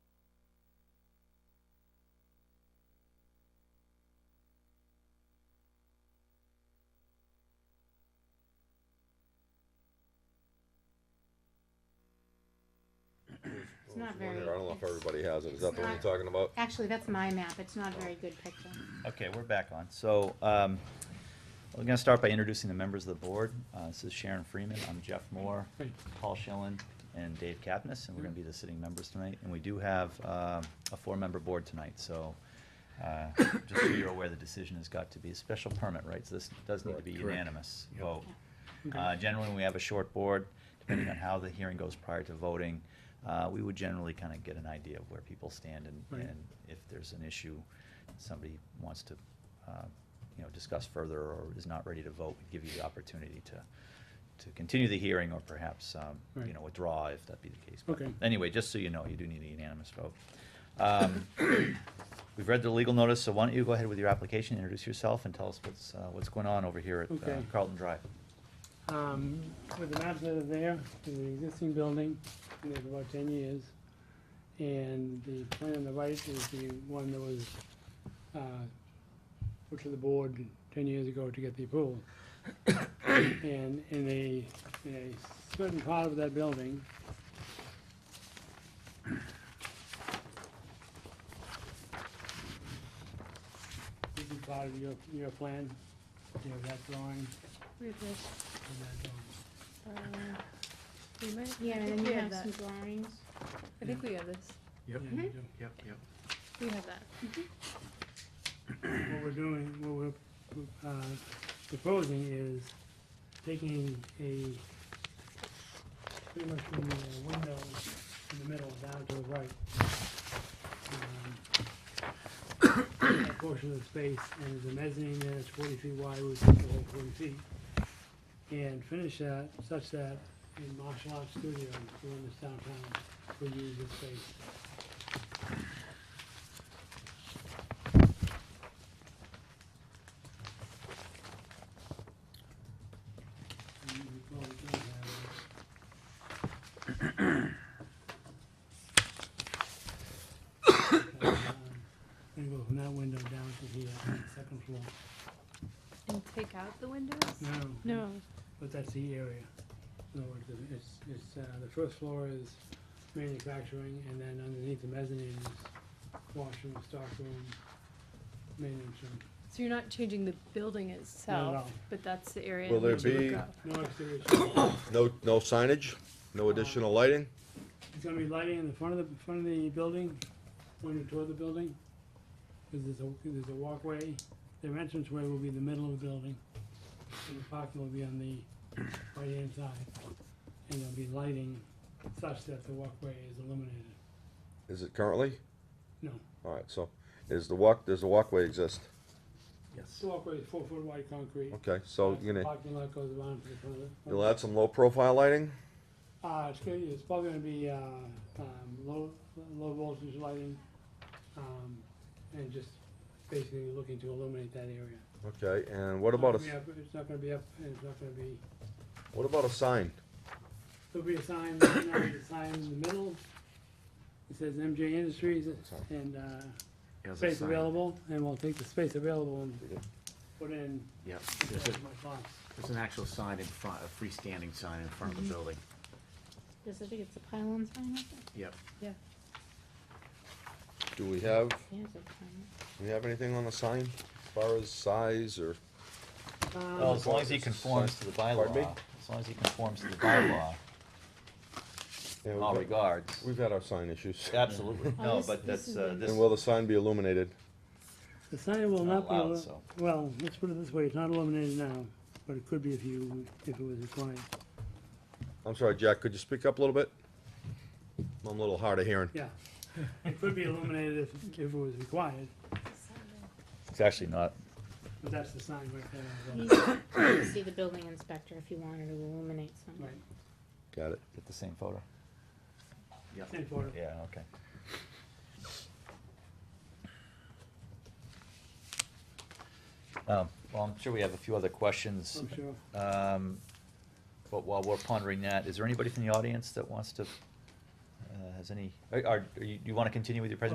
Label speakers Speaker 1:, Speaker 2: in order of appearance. Speaker 1: It's not
Speaker 2: One
Speaker 1: very.
Speaker 2: here, I don't know if everybody has it, is that the one you're
Speaker 1: It's
Speaker 2: talking about?
Speaker 1: Actually, that's my map. It's not a very good picture.
Speaker 3: Okay, we're back on. So, um, we're gonna start by introducing the members of the board. Uh, this is Sharon Freeman, I'm Jeff Moore, Paul Schillen, and Dave Kapnis, and we're gonna be the sitting members tonight. And we do have, uh, a four-member board tonight, so, uh, just so you're aware, the decision has got to be a special permit, right? So this does need to be
Speaker 4: Correct. Correct.
Speaker 3: unanimous
Speaker 4: Yep.
Speaker 2: Oh.
Speaker 3: vote.
Speaker 5: Okay.
Speaker 3: Uh, generally, when we have a short board, depending on how the hearing goes prior to voting, uh, we would generally kind of get an idea of where people stand and,
Speaker 5: Right.
Speaker 3: and if there's an issue somebody wants to, uh, you know, discuss further or is not ready to vote, we give you the opportunity to, to continue the hearing or perhaps, um, you
Speaker 5: Right.
Speaker 3: know, withdraw if that be the case. But
Speaker 5: Okay.
Speaker 3: Anyway, just so you know, you do need a unanimous vote. Um, We've read the legal notice, so why don't you go ahead with your application, introduce yourself and tell us what's, uh, what's going on over here at uh,
Speaker 5: Okay.
Speaker 3: Carlton Drive.
Speaker 5: Um, with the maps that are there, there's an existing building, and it's about ten years. And the plan on the right is the one that was, uh, put to the board ten years ago to get the approval. And in a, in a certain part of that building, this is part of your, your plan, you have that drawing,
Speaker 6: Where's this?
Speaker 5: and that drawing.
Speaker 6: Uh, we might-
Speaker 1: Yeah,
Speaker 6: I
Speaker 1: and
Speaker 6: think
Speaker 1: then
Speaker 6: we
Speaker 1: you have
Speaker 6: that.
Speaker 1: some drawings.
Speaker 6: I think we have this.
Speaker 4: Yep,
Speaker 5: Yeah, you do.
Speaker 4: yep, yep.
Speaker 6: We have that.
Speaker 5: what we're doing, what we're uh, proposing is taking a, pretty much from the uh, window in the middle down to the right. Um, That portion of the space, and the mezzanine there is forty feet wide, we took the whole forty feet. And finish that such that a martial arts studio, the one that's downtown, will use this space. And we probably don't have it. And go from that window down to here, second floor.
Speaker 6: And take out the windows?
Speaker 5: No,
Speaker 6: No,
Speaker 5: but that's the area. No, it's, it's, uh, the first floor is manufacturing, and then underneath the mezzanine is washroom, stockroom, maintenance room.
Speaker 6: so you're not changing the building itself,
Speaker 5: no.
Speaker 6: but that's the area.
Speaker 2: Will
Speaker 6: in
Speaker 2: there
Speaker 6: which it would
Speaker 2: be-
Speaker 6: go.
Speaker 5: No exterior, change.
Speaker 2: No, no signage, no additional lighting?
Speaker 5: it's gonna be lighting in the front of the, front of the building, when you tour the building. 'cause there's a, there's a walkway, their entranceway will be in the middle of the building, and the parking will be on the right-hand side. And there'll be lighting such that the walkway is illuminated.
Speaker 2: Is it currently?
Speaker 5: No,
Speaker 2: Alright, so, is the walk, does the walkway exist?
Speaker 4: Yes.
Speaker 5: the walkway is four-foot wide concrete.
Speaker 2: Okay, so you're gonna,
Speaker 5: Parking lot goes around to the front of the.
Speaker 2: you'll add some low profile lighting?
Speaker 5: Uh, it's gonna, it's probably gonna be, uh, um, low, low voltage lighting, um, and just basically looking to illuminate that area.
Speaker 2: Okay, and what about a,
Speaker 5: It's not gonna be up- It's not gonna be up, and it's not gonna be,
Speaker 2: what about a sign?
Speaker 5: there'll be a sign, right now there's a sign in the middle. It says MJ Industries
Speaker 2: Sorry.
Speaker 5: and, uh,
Speaker 4: As a
Speaker 5: space
Speaker 4: sign.
Speaker 5: available, and we'll take the space available and put in.
Speaker 4: Yep, there's a,
Speaker 5: my box.
Speaker 4: there's an actual sign in front, a freestanding sign in front of the
Speaker 5: Mm-hmm.
Speaker 4: building.
Speaker 1: Does it, think it's a pylon sign up
Speaker 4: Yep.
Speaker 6: Yeah.
Speaker 2: Do we have,
Speaker 1: there? It is a pylon.
Speaker 2: do we have anything on the sign as far as size or?
Speaker 5: Um,
Speaker 3: Well, as long as he conforms to the
Speaker 2: Pardon me?
Speaker 3: bylaw, as long as he conforms to the bylaw,
Speaker 2: Yeah,
Speaker 3: in
Speaker 2: we've
Speaker 3: all
Speaker 2: got-
Speaker 3: regards.
Speaker 2: We've had our sign issues.
Speaker 3: Absolutely,
Speaker 1: Oh,
Speaker 3: no,
Speaker 1: this-
Speaker 3: but
Speaker 1: this
Speaker 3: that's,
Speaker 1: is
Speaker 3: uh,
Speaker 1: a-
Speaker 3: this,
Speaker 2: And will the sign be illuminated?
Speaker 5: The sign will
Speaker 3: Not
Speaker 5: not be,
Speaker 3: allowed,
Speaker 5: illu-
Speaker 3: so.
Speaker 5: well, let's put it this way, it's not illuminated now, but it could be if you, if it was required.
Speaker 2: I'm sorry, Jack, could you speak up a little bit? I'm a little hard of hearing.
Speaker 5: Yeah, it could be illuminated if, if it was required,
Speaker 3: it's actually not,
Speaker 5: but that's the sign right there. on the
Speaker 1: You
Speaker 5: building.
Speaker 1: can See the building inspector if you wanted to illuminate something.
Speaker 5: Right,
Speaker 2: Got it.
Speaker 3: get the same photo.
Speaker 4: Yep.
Speaker 5: same photo.
Speaker 3: Yeah, okay. Um, well, I'm sure we have a few other questions.
Speaker 5: I'm sure.
Speaker 3: Um, but while we're pondering that, is there anybody from the audience that wants to, uh, has any, are, are, you, you wanna continue with your presentation?